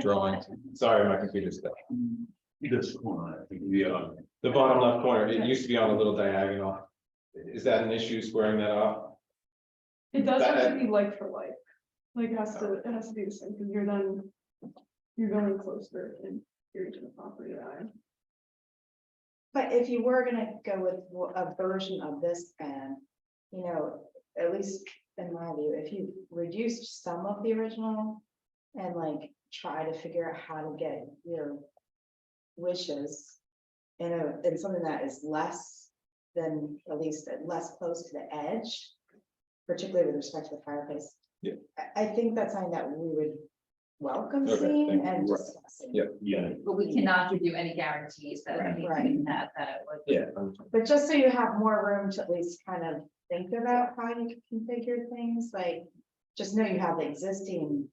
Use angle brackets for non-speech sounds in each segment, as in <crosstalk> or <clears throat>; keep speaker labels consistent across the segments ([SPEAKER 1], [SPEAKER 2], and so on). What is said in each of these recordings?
[SPEAKER 1] drawings. Sorry, my computer's stuck.
[SPEAKER 2] This one, I think, yeah.
[SPEAKER 1] The bottom left corner, it used to be on a little diagonal. Is that an issue squaring that off?
[SPEAKER 3] It does have
[SPEAKER 1] That-
[SPEAKER 3] to be like for like, like it has to, it has to be the same, because you're then, you're going closer and you're to the property line.
[SPEAKER 4] But if you were gonna go with w- a version of this and, you know, at least in my view, if you reduced some of the original. And like try to figure out how to get your wishes. You know, in something that is less than, at least less close to the edge. Particularly with respect to the fireplace.
[SPEAKER 1] Yeah.
[SPEAKER 4] I, I think that's something that we would welcome
[SPEAKER 1] Okay,
[SPEAKER 4] seeing
[SPEAKER 1] thank you.
[SPEAKER 4] and
[SPEAKER 1] Right.
[SPEAKER 4] discussing.
[SPEAKER 1] Yeah.
[SPEAKER 2] Yeah,
[SPEAKER 5] But we cannot give you any guarantees that
[SPEAKER 1] Right.
[SPEAKER 5] anything that, that uh, it would.
[SPEAKER 1] Yeah.
[SPEAKER 4] But just so you have more room to at least kind of think about how you can configure things, like, just know you have the existing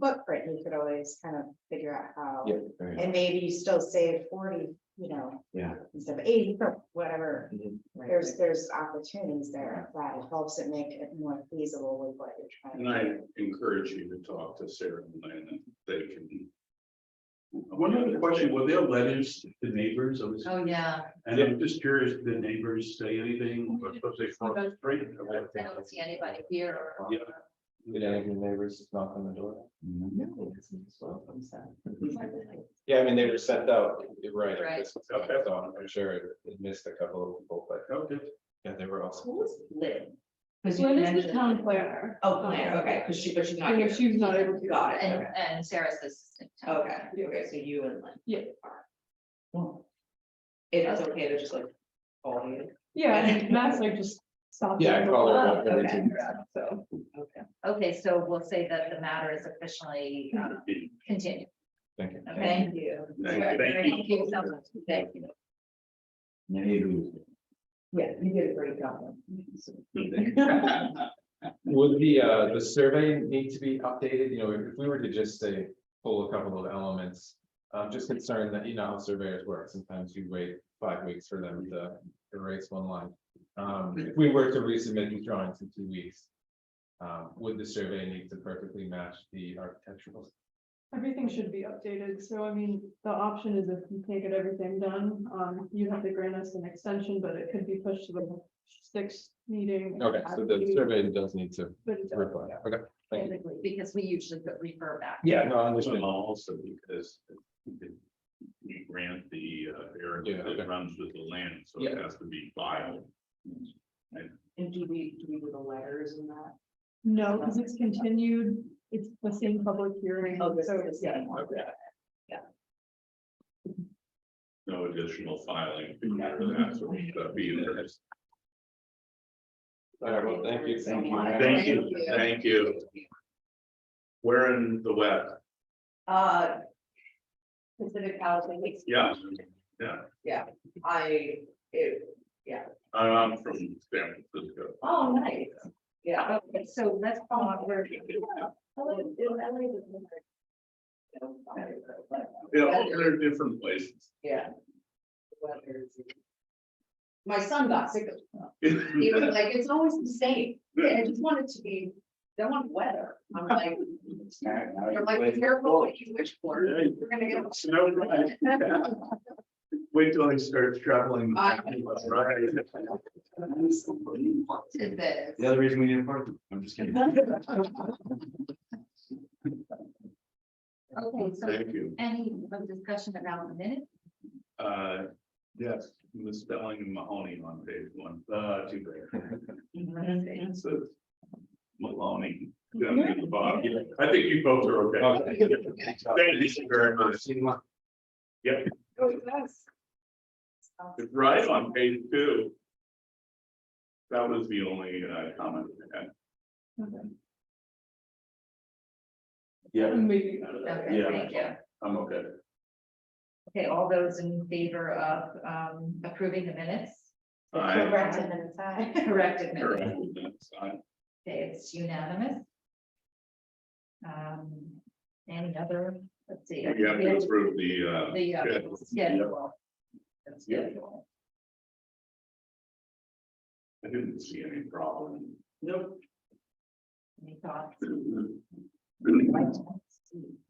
[SPEAKER 4] footprint, you could always kind of figure out
[SPEAKER 1] Yeah.
[SPEAKER 4] how.
[SPEAKER 1] there you go.
[SPEAKER 4] And maybe you still save forty, you know.
[SPEAKER 1] Yeah.
[SPEAKER 4] Instead of eighty, or whatever,
[SPEAKER 1] Mhm.
[SPEAKER 4] there's, there's opportunities there that helps it make it more feasible with what you're trying. to
[SPEAKER 2] and I encourage you to talk to Sarah and Lana, they can. One other question, were there letters to neighbors? I was-
[SPEAKER 5] Oh, yeah,
[SPEAKER 2] And I'm just curious, did the neighbors say anything? Or suppose they
[SPEAKER 5] Oh,
[SPEAKER 2] fought the street?
[SPEAKER 5] I don't see anybody here or.
[SPEAKER 2] Yeah.
[SPEAKER 1] Did any of your neighbors knock on the door?
[SPEAKER 5] No.
[SPEAKER 1] Yeah, I mean, they were sent out, right?
[SPEAKER 5] Right.
[SPEAKER 1] That's that's all. I'm sure it it missed a couple of people, but
[SPEAKER 2] Okay.
[SPEAKER 1] yeah, they were also.
[SPEAKER 5] Who was Lynn? Because you
[SPEAKER 3] Lynn is the
[SPEAKER 5] mentioned.
[SPEAKER 3] town planner.
[SPEAKER 5] Oh, planner, okay, because she, but she's not
[SPEAKER 3] Yeah,
[SPEAKER 5] here.
[SPEAKER 3] she's not able to.
[SPEAKER 5] Got it, and, and Sarah's the assistant. town
[SPEAKER 6] Okay,
[SPEAKER 5] planner.
[SPEAKER 6] okay, so you and Lynn.
[SPEAKER 3] Yeah.
[SPEAKER 6] Well, It is okay to just like call you.
[SPEAKER 3] Yeah, and Matt's like just stop.
[SPEAKER 1] Yeah, I call her up every
[SPEAKER 6] Okay.
[SPEAKER 1] two weeks.
[SPEAKER 6] So, okay.
[SPEAKER 5] Okay, so we'll say that the matter is officially
[SPEAKER 2] Mm-hmm.
[SPEAKER 5] um, continued,
[SPEAKER 1] Thank you.
[SPEAKER 5] okay?
[SPEAKER 6] you.
[SPEAKER 2] Thank- thank you.
[SPEAKER 5] so much. Thank you.
[SPEAKER 6] Yeah, you did a great job.
[SPEAKER 1] <laughs> Would the, uh, the survey need to be updated? You know, if if we were to just say, pull a couple of elements. I'm just concerned that, you know, how surveyors work. Sometimes you wait five weeks for them to erase one line. Um,
[SPEAKER 5] Mm.
[SPEAKER 1] if we were to resubmit these drawings in two weeks. Um, would the survey need to perfectly match the architectural?
[SPEAKER 3] Everything should be updated, so I mean, the option is if you can't get everything done, um, you have to grant us an extension, but it could be pushed to the sixth meeting.
[SPEAKER 1] Okay, so the survey does need to
[SPEAKER 3] But it does.
[SPEAKER 1] reply. Okay, thank you.
[SPEAKER 5] Basically, Because we usually put refer back.
[SPEAKER 1] Yeah, no, I
[SPEAKER 2] And
[SPEAKER 1] understand.
[SPEAKER 2] Also because. We grant the uh,
[SPEAKER 1] Yeah,
[SPEAKER 2] area
[SPEAKER 1] okay.
[SPEAKER 2] that runs with the land, so it
[SPEAKER 1] Yeah.
[SPEAKER 2] has to be filed.
[SPEAKER 6] And do we, do we do the letters and that?
[SPEAKER 3] No, because it's continued, it's the same public hearing,
[SPEAKER 6] Oh, this
[SPEAKER 3] so
[SPEAKER 6] is
[SPEAKER 3] it's,
[SPEAKER 6] the
[SPEAKER 3] yeah.
[SPEAKER 6] same one.
[SPEAKER 2] No additional filing.
[SPEAKER 1] Mm-hmm.
[SPEAKER 2] That's what we gotta be in there.
[SPEAKER 1] All right, well, thank you.
[SPEAKER 5] Thank you.
[SPEAKER 2] Thank you, thank you. We're in the web,
[SPEAKER 6] Uh. Pacific Housing,
[SPEAKER 2] yeah,
[SPEAKER 6] I, it,
[SPEAKER 2] I'm from San Francisco.
[SPEAKER 5] Oh, nice.
[SPEAKER 6] yeah.
[SPEAKER 5] Okay, so let's follow up where.
[SPEAKER 2] Yeah, all they're different places.
[SPEAKER 6] Yeah. My son got sick of it. He was
[SPEAKER 2] Yeah,
[SPEAKER 6] like, it's always the same. I just want it to be, I want weather. I'm like, you're like, be careful what you wish for. We're gonna get.
[SPEAKER 2] Snow, right? Yeah. Wait till I start traveling.
[SPEAKER 6] I-
[SPEAKER 2] Right.
[SPEAKER 5] Did this.
[SPEAKER 7] The other reason we need a parking, I'm just kidding.
[SPEAKER 3] <laughs>
[SPEAKER 5] Okay, so
[SPEAKER 2] Thank you.
[SPEAKER 5] any of discussion around the minute?
[SPEAKER 2] Uh, yes, misspelling of Mahoney on page one, uh, too bad. It says Maloney down at the bottom. I think you both are okay. Thank you very much. Yep,
[SPEAKER 3] Oh,
[SPEAKER 2] it's <laughs> right on page two. That was the only uh, comment I had.
[SPEAKER 7] Yeah,
[SPEAKER 3] Maybe.
[SPEAKER 5] Okay,
[SPEAKER 2] Yeah.
[SPEAKER 5] thank you.
[SPEAKER 2] I'm okay.
[SPEAKER 5] Okay, all those in favor of um approving the minutes,
[SPEAKER 2] I
[SPEAKER 4] Corrected and inside.
[SPEAKER 5] corrected minutes,
[SPEAKER 2] correct with that sign.
[SPEAKER 5] okay, it's unanimous. Um, any other, let's see.
[SPEAKER 2] We have to approve the, uh,
[SPEAKER 5] The uh,
[SPEAKER 2] schedule.
[SPEAKER 5] schedule. The
[SPEAKER 2] Yeah.
[SPEAKER 5] schedule.
[SPEAKER 2] I didn't see any problem. <clears throat>
[SPEAKER 5] Nope. Any thoughts?
[SPEAKER 2] Really?
[SPEAKER 5] Like to see.